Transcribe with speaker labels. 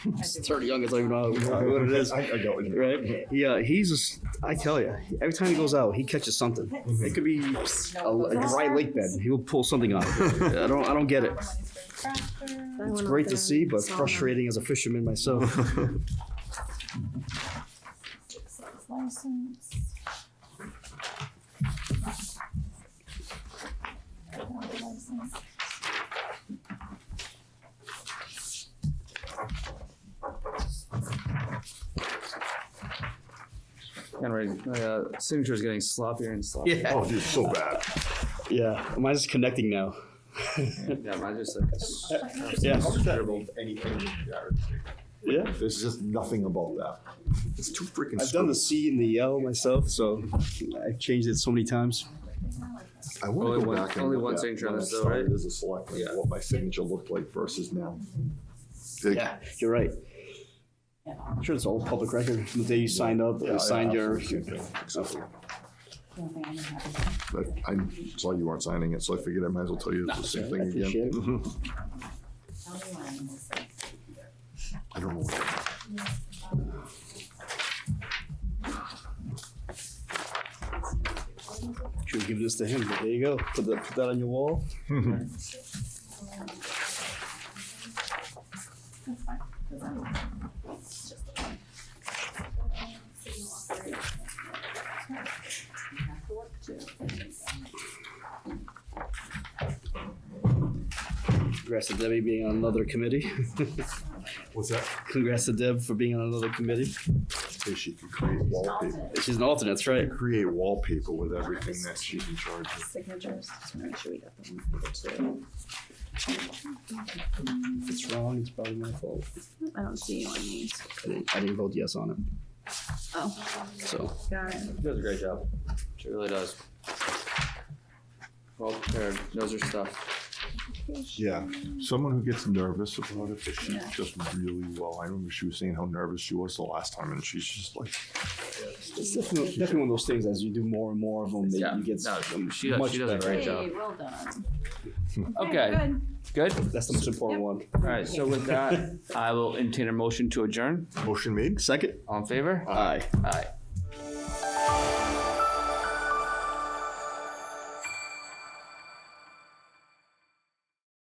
Speaker 1: It's thirty young, it's not even know what it is.
Speaker 2: I, I don't.
Speaker 1: Right? Yeah, uh, he's just, I tell you, every time he goes out, he catches something. It could be a, a dry lake bed. He will pull something out. of it. I don't, I don't get it. It's great to see, but frustrating as a fisherman myself.
Speaker 3: License. License.
Speaker 4: Anyway, my uh, signature's getting sloppier and sloppier.
Speaker 1: Yeah,
Speaker 2: Oh, dude, so bad.
Speaker 1: yeah. Mine's just connecting now.
Speaker 4: Yeah, mine's just like. s-
Speaker 1: Yeah,
Speaker 2: Terrible. Anything.
Speaker 1: yeah.
Speaker 2: There's just nothing about that. It's too freaking.
Speaker 1: I've done the C and the L myself, so I've changed it so many times.
Speaker 2: I want
Speaker 4: Only
Speaker 2: to go
Speaker 4: one-
Speaker 2: back and
Speaker 4: only
Speaker 2: look
Speaker 4: one
Speaker 2: at
Speaker 4: signature on
Speaker 2: when I
Speaker 4: this though,
Speaker 2: started
Speaker 4: right?
Speaker 2: As a selectman,
Speaker 4: Yeah.
Speaker 2: what my signature looked like versus now.
Speaker 1: Yeah, you're right. I'm sure it's all public record. The day you signed up,
Speaker 2: Yeah,
Speaker 1: you signed
Speaker 2: yeah,
Speaker 1: your.
Speaker 2: absolutely. Exactly.
Speaker 3: Nothing I'm happy with.
Speaker 2: I- I saw you weren't signing it, so I figured I might as well tell you it's the same thing
Speaker 1: I appreciate
Speaker 2: again.
Speaker 1: it.
Speaker 2: Mhm.
Speaker 3: Tell me why I'm this way.
Speaker 2: I don't know. what-
Speaker 1: Should give this to him. But there you go. Put that, put that on your wall.
Speaker 3: That's fine, 'cause I'm- it's just the one. You have to work too.
Speaker 1: Congrats to Debbie being on another committee.
Speaker 2: What's that?
Speaker 1: Congrats to Deb for being on another committee.
Speaker 2: Hey, she can create wallpaper.
Speaker 1: She's an alternate, that's right.
Speaker 2: Create wallpaper with everything that she's in charge of.
Speaker 3: Signatures, just wanna make sure we got the one for the two.
Speaker 1: If it's wrong, it's probably my fault.
Speaker 3: I don't see you on these.
Speaker 1: I didn't, I didn't vote yes on it,
Speaker 3: Oh,
Speaker 1: so.
Speaker 3: got it.
Speaker 4: She does a great job. She really does. Well prepared, knows her stuff.
Speaker 2: Yeah, someone who gets nervous about it, but she's
Speaker 3: Yeah.
Speaker 2: just really well. I remember she was saying how nervous she was the last time, and she's just like,
Speaker 1: It's definitely, definitely one of those things, as you do more and more of them, that
Speaker 4: Yeah,
Speaker 1: you get
Speaker 4: no, she does-
Speaker 1: much
Speaker 4: she does a
Speaker 1: better.
Speaker 4: Great
Speaker 3: Hey,
Speaker 4: job.
Speaker 3: well done.
Speaker 4: Okay.
Speaker 3: Good.
Speaker 4: Good?
Speaker 1: That's the most important one.
Speaker 4: All right, so with that, I will entertain a motion to adjourn.
Speaker 2: motion made.
Speaker 1: Second?
Speaker 4: All in favor?
Speaker 1: Aye.
Speaker 4: Aye.